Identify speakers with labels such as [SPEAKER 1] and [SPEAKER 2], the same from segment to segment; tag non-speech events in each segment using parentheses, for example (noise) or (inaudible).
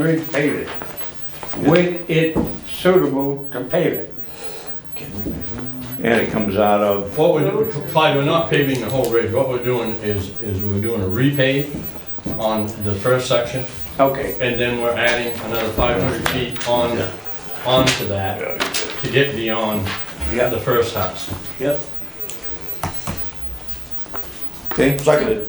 [SPEAKER 1] repave it when it's suitable to pave it. And it comes out of,
[SPEAKER 2] What we're, Clyde, we're not paving the whole ridge, what we're doing is, is we're doing a repave on the first section,
[SPEAKER 1] okay,
[SPEAKER 2] and then we're adding another five hundred feet on, onto that to get beyond
[SPEAKER 1] yeah,
[SPEAKER 2] the first house.
[SPEAKER 1] yep. Okay,
[SPEAKER 3] Seconded.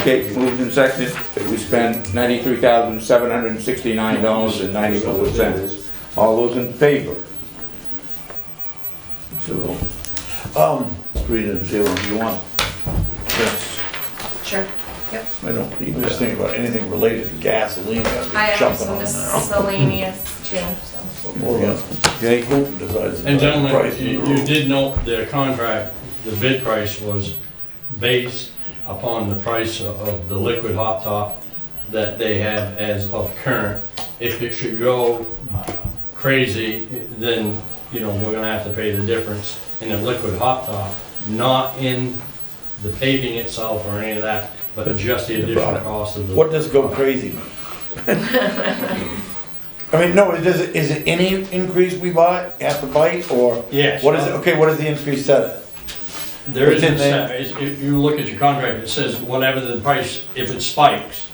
[SPEAKER 1] okay, moved and seconded, that we spend ninety-three thousand, seven hundred and sixty-nine dollars and ninety-four cents. All those in favor? So,
[SPEAKER 3] Um,
[SPEAKER 1] three to zero, you want?
[SPEAKER 3] yes.
[SPEAKER 4] Sure, yep.
[SPEAKER 1] I don't need
[SPEAKER 3] I'm just
[SPEAKER 1] that.
[SPEAKER 3] thinking about anything related to gasoline,
[SPEAKER 4] I
[SPEAKER 3] I'd be
[SPEAKER 4] have
[SPEAKER 3] jumping
[SPEAKER 4] some
[SPEAKER 3] on now.
[SPEAKER 4] miscellaneous too, so.
[SPEAKER 3] Before the-
[SPEAKER 1] Okay,
[SPEAKER 3] who decides the
[SPEAKER 2] And gentlemen,
[SPEAKER 3] price
[SPEAKER 2] you,
[SPEAKER 3] of the
[SPEAKER 2] you
[SPEAKER 3] road.
[SPEAKER 2] did note the contract, the bid price was based upon the price of- of the liquid hot top that they have as of current. If it should go crazy, then, you know, we're gonna have to pay the difference in the liquid hot top, not in the paving itself or any of that, but just the additional cost of the.
[SPEAKER 3] What does go crazy? mean? I mean, no, it does, is it any increase we buy, have to bite, or
[SPEAKER 2] Yes.
[SPEAKER 3] what is it, okay, what is the increase set at?
[SPEAKER 2] There is,
[SPEAKER 3] Within
[SPEAKER 2] a
[SPEAKER 3] the-
[SPEAKER 2] set- is- if you look at your contract, it says whatever the price, if it spikes,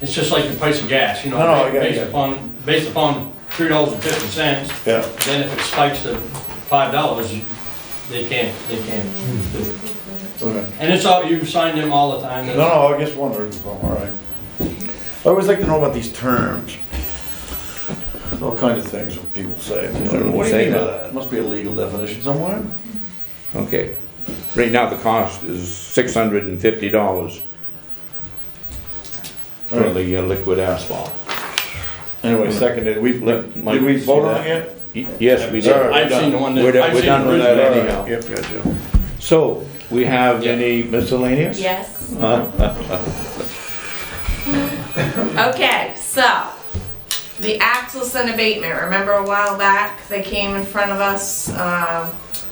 [SPEAKER 2] it's just like the price of gas, you know,
[SPEAKER 3] No, no, I got
[SPEAKER 2] ba-
[SPEAKER 3] it,
[SPEAKER 2] based
[SPEAKER 3] yeah.
[SPEAKER 2] upon, based upon three dollars and fifty cents,
[SPEAKER 3] Yeah,
[SPEAKER 2] then if it spikes to five dollars, they can't, they can't do it.
[SPEAKER 3] okay.
[SPEAKER 2] And it's all, you sign them all the time.
[SPEAKER 3] No, no, I just wondered, so, all right. I always like to know about these terms. There's All kinds of things that people say.
[SPEAKER 1] don't
[SPEAKER 3] What do you
[SPEAKER 1] say
[SPEAKER 3] mean by
[SPEAKER 1] that.
[SPEAKER 3] that? Must be a legal definition somewhere.
[SPEAKER 1] Okay. Right now, the cost is six hundred and fifty dollars for
[SPEAKER 3] Alright.
[SPEAKER 1] the uh, liquid asphalt.
[SPEAKER 3] Anyway, seconded, we,
[SPEAKER 1] Let Mike
[SPEAKER 3] did we
[SPEAKER 1] see
[SPEAKER 3] vote on
[SPEAKER 1] that.
[SPEAKER 3] it yet?
[SPEAKER 1] Y- Yes, we
[SPEAKER 3] All
[SPEAKER 1] did.
[SPEAKER 3] right.
[SPEAKER 2] I've seen the one that.
[SPEAKER 1] We're done-
[SPEAKER 2] I've
[SPEAKER 1] we're
[SPEAKER 2] seen
[SPEAKER 1] done
[SPEAKER 2] the
[SPEAKER 1] with
[SPEAKER 2] original-
[SPEAKER 1] that anyhow.
[SPEAKER 3] Uh, Yep, gotcha.
[SPEAKER 1] So, we have any
[SPEAKER 3] (laughs)
[SPEAKER 1] miscellaneous?
[SPEAKER 4] Yes.
[SPEAKER 1] Uh,
[SPEAKER 4] Okay, so, the Axelson abatement, remember a while back, they came in front of us, um, what's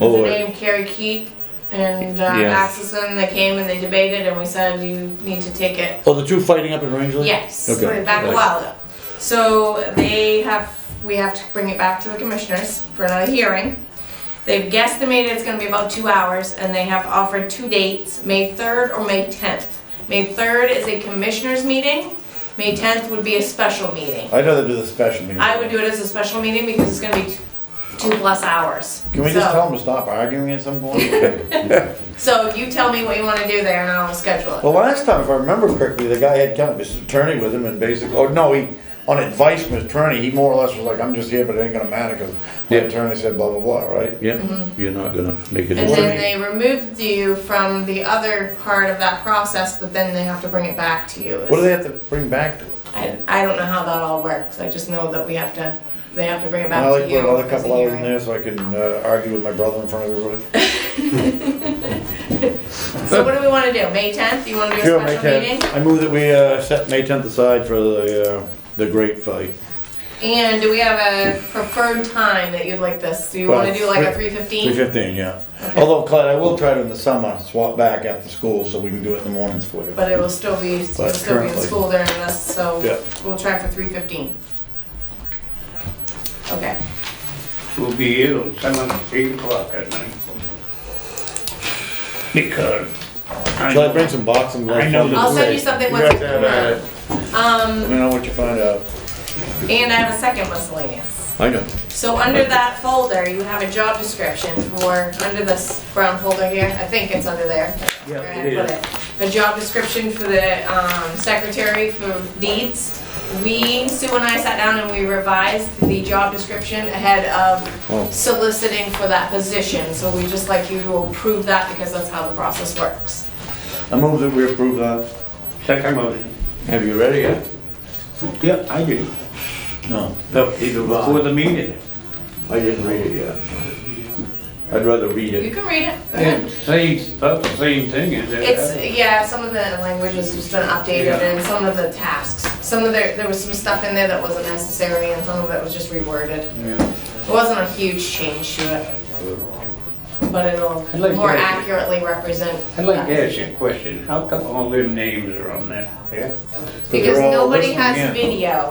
[SPEAKER 1] Oh,
[SPEAKER 4] her name, Carrie Keith and uh,
[SPEAKER 1] Yes.
[SPEAKER 4] Axelson, they came and they debated and we said, you need to take it
[SPEAKER 3] Oh, the two fighting up in Rangeley?
[SPEAKER 4] Yes,
[SPEAKER 3] Okay.
[SPEAKER 4] we're back a
[SPEAKER 3] Right.
[SPEAKER 4] while ago. So they have, we have to bring it back to the commissioners for another hearing. They've guesstimated it's gonna be about two hours, and they have offered two dates, May third or May tenth. May third is a commissioners meeting, May tenth would be a special meeting.
[SPEAKER 3] I'd rather do the special meeting.
[SPEAKER 4] I would do it as a special meeting because it's gonna be t- two plus hours.
[SPEAKER 3] Can we just
[SPEAKER 4] So-
[SPEAKER 3] tell them to stop arguing at some point? (laughs)
[SPEAKER 4] So you tell me what you wanna do there, and I'll schedule it.
[SPEAKER 3] Well, last time, if I remember correctly, the guy had kind of his attorney with him and basically, oh, no, he, on advice from his attorney, he more or less was like, I'm just here, but it ain't gonna matter, cause my
[SPEAKER 1] Yeah.
[SPEAKER 3] attorney said blah, blah, blah, right?
[SPEAKER 1] Yeah, you're not gonna make
[SPEAKER 4] Mm-hmm.
[SPEAKER 1] it.
[SPEAKER 4] And
[SPEAKER 3] what do
[SPEAKER 1] work.
[SPEAKER 3] you
[SPEAKER 4] then they removed you from the other part of that process, but then they have to bring it back to you.
[SPEAKER 3] What do they have to bring back to it?
[SPEAKER 4] I, I don't know how that all works, I just know that we have to, they have to bring it
[SPEAKER 3] I
[SPEAKER 4] back
[SPEAKER 3] like
[SPEAKER 4] to
[SPEAKER 3] to put
[SPEAKER 4] you.
[SPEAKER 3] another
[SPEAKER 4] as a
[SPEAKER 3] couple hours in
[SPEAKER 4] hearing.
[SPEAKER 3] there so I can, uh, argue with my brother in front of everybody.
[SPEAKER 4] So what do we wanna do, May tenth, you wanna do
[SPEAKER 3] Sure,
[SPEAKER 4] a
[SPEAKER 3] May
[SPEAKER 4] special meeting?
[SPEAKER 3] 10th. I move that we, uh, set May tenth aside for the, uh, the great fight.
[SPEAKER 4] And do we have a preferred time that you'd like this, do you
[SPEAKER 3] Well,
[SPEAKER 4] wanna do like a
[SPEAKER 3] three-
[SPEAKER 4] three
[SPEAKER 3] Three
[SPEAKER 4] fifteen?
[SPEAKER 3] fifteen, yeah. Although Clyde, I will try to in the summer, swap back after school so we can do it in the mornings for you.
[SPEAKER 4] But it will still be, you'll
[SPEAKER 3] But
[SPEAKER 4] still be in
[SPEAKER 3] currently-
[SPEAKER 4] school during this, so
[SPEAKER 3] Yeah.
[SPEAKER 4] we'll try for three fifteen. Okay,
[SPEAKER 1] We'll be here till seven, eight o'clock at night. Because. I
[SPEAKER 3] Shall I
[SPEAKER 1] know-
[SPEAKER 3] bring some boxing gloves?
[SPEAKER 1] I know
[SPEAKER 3] for
[SPEAKER 1] the-
[SPEAKER 4] I'll send you something
[SPEAKER 1] You
[SPEAKER 4] once
[SPEAKER 1] got
[SPEAKER 4] we come
[SPEAKER 1] that,
[SPEAKER 4] out. Um,
[SPEAKER 3] Let me know what you find out.
[SPEAKER 4] and I have a second miscellaneous.
[SPEAKER 1] I know.
[SPEAKER 4] So under that folder, you have a job description for, under this brown folder here, I think it's under there.
[SPEAKER 1] Yeah,
[SPEAKER 4] Where I
[SPEAKER 1] it
[SPEAKER 4] put A job description for the um, secretary for deeds. We, Sue and I sat down and we revised the job description ahead
[SPEAKER 1] Oh.
[SPEAKER 4] of soliciting for that position. So we just like you to approve that because that's how the process works.
[SPEAKER 3] I move that we approve that.
[SPEAKER 1] Second motion. Have you read it yet? Yeah, I did.
[SPEAKER 3] No.
[SPEAKER 1] No, Before the meeting. I didn't read it yet. I'd rather read
[SPEAKER 4] You
[SPEAKER 1] it.
[SPEAKER 4] can read it. Go ahead.
[SPEAKER 5] It's same, about the same thing, is it?
[SPEAKER 4] It's, yeah, some of the language has just been updated
[SPEAKER 5] Yeah.
[SPEAKER 4] and some of the tasks, some of the, there was some stuff in there that wasn't necessary and some of it was just reworded. It wasn't a huge change to it. but it'll
[SPEAKER 5] I'd like
[SPEAKER 4] more
[SPEAKER 5] that.
[SPEAKER 4] accurately represent.
[SPEAKER 5] I'd like to ask you a question. How come all them names are on that?
[SPEAKER 3] Yeah.
[SPEAKER 4] Because
[SPEAKER 3] They're all
[SPEAKER 4] nobody
[SPEAKER 3] listed
[SPEAKER 4] has
[SPEAKER 5] in.
[SPEAKER 4] video.